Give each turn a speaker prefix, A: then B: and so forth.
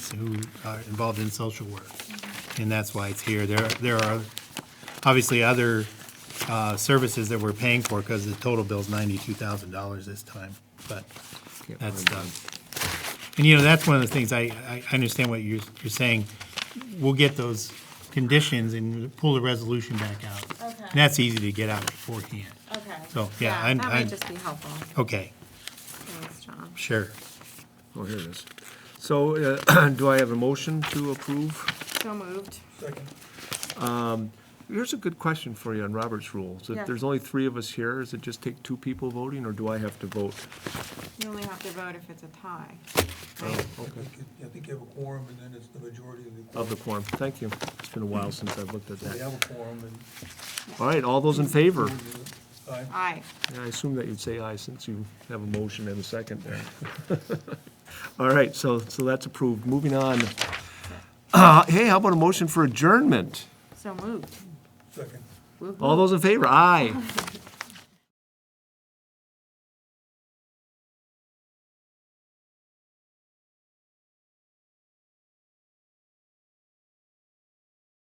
A: who are involved in social work. And that's why it's here. There, there are obviously other uh, services that we're paying for because the total bill's ninety-two thousand dollars this time, but that's done. And you know, that's one of the things, I, I I understand what you're, you're saying. We'll get those conditions and pull the resolution back out.
B: Okay.
A: And that's easy to get out beforehand.
B: Okay.
A: So, yeah, I'm-
B: That
A: I'm-
B: might just be helpful.
A: Okay,
B: Thanks, John.
A: sure.
C: Oh, here it is. So uh, do I have a motion to approve?
B: So moved.
C: Here's a good question for you on Robert's rules. If
B: Yeah.
C: there's only three of us here, does it just take two people voting, or do I have to vote?
B: You only have to vote if it's a tie.
C: uh, Oh, Okay. Oh,
D: I think you have a quorum, and then it's the majority of the.
C: Of the quorum. Thank you. It's been a while since I've looked at
D: We
C: that.
D: have a quorum, uh, and.
C: All right, all those in favor?
D: Aye.
B: Aye.
C: Yeah, I assume that you'd say aye, since you have a motion and a second there. All right, so, so that's approved. Moving on. Uh, Hey, how about a motion for adjournment?
B: So moved.
D: Second.
B: Woo-hoo.
C: All those in favor? Aye.